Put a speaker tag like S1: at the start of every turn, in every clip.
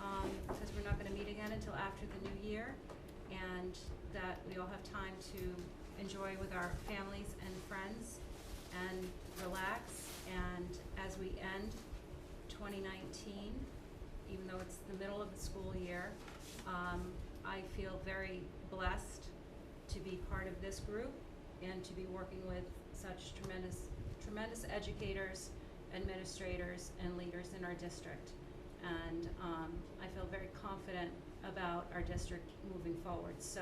S1: Um, until after the new year, and that we all have time to enjoy with our families and friends and relax. And as we end 2019, even though it's the middle of the school year, um, I feel very blessed to be part of this group and to be working with such tremendous, tremendous educators, administrators, and leaders in our district. And um, I feel very confident about our district moving forward. So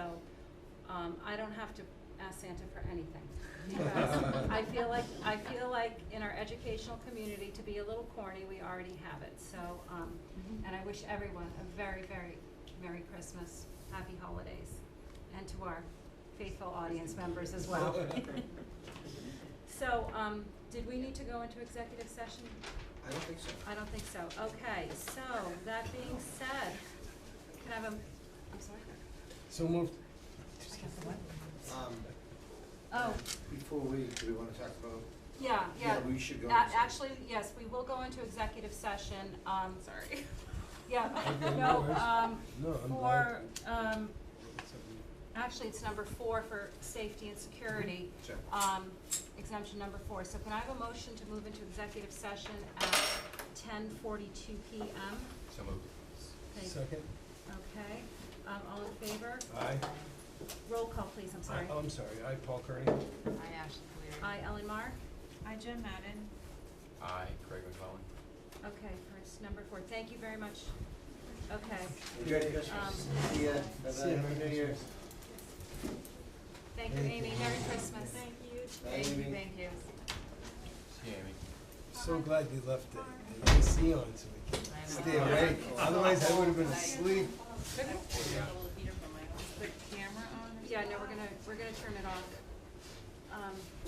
S1: um, I don't have to ask Santa for anything. Because I feel like, I feel like in our educational community, to be a little corny, we already have it. So, um, and I wish everyone a very, very Merry Christmas, Happy Holidays, and to our faithful audience members as well. So, um, did we need to go into executive session?
S2: I don't think so.
S1: I don't think so. Okay, so that being said, can I have a, I'm sorry?
S3: So moved.
S2: Um,
S1: Oh,
S2: before we, do we wanna talk about,
S1: yeah, yeah.
S2: yeah, we should go.
S1: A-
S2: into-
S1: Actually, yes, we will go into executive session, um. Sorry. Yeah,
S3: Okay, no
S1: no,
S3: worries.
S1: um,
S3: No, I'm
S1: for,
S3: glad.
S1: um, actually, it's number four for safety and security.
S2: Sure.
S1: um, exemption number four. So can I have a motion to move into executive session at ten forty-two PM?
S2: So moved.
S1: Thank-
S3: Second?
S1: Okay, um, all in favor?
S3: Aye. Oh,
S1: Roll call, please, I'm sorry.
S3: I'm sorry, aye, Paul Kearney.
S4: I Ashley Caleri.
S1: Aye, Ellen Mar?
S4: I Jen Madden.
S5: Aye, Craig McClellan.
S1: Okay, first, number four. Thank you very much. Okay,
S2: Merry Christmas.
S1: Um,
S2: See ya.
S3: See ya,
S2: Bye-bye.
S3: Merry
S2: Happy New Year.
S3: Christmas.
S1: thank you,
S3: Thank you.
S1: Amy. Merry Christmas. Thank you.
S2: Thank you.
S4: Thank you.
S5: See you, Amy.
S3: So glad you left it, the AC on so we can
S4: I
S3: stay
S4: know.
S3: awake, otherwise I would have been
S4: Night.
S3: asleep.
S4: I pulled a little heater from my office. Put camera on or
S1: Yeah, no,
S4: something?
S1: we're gonna, we're gonna turn it off. Um,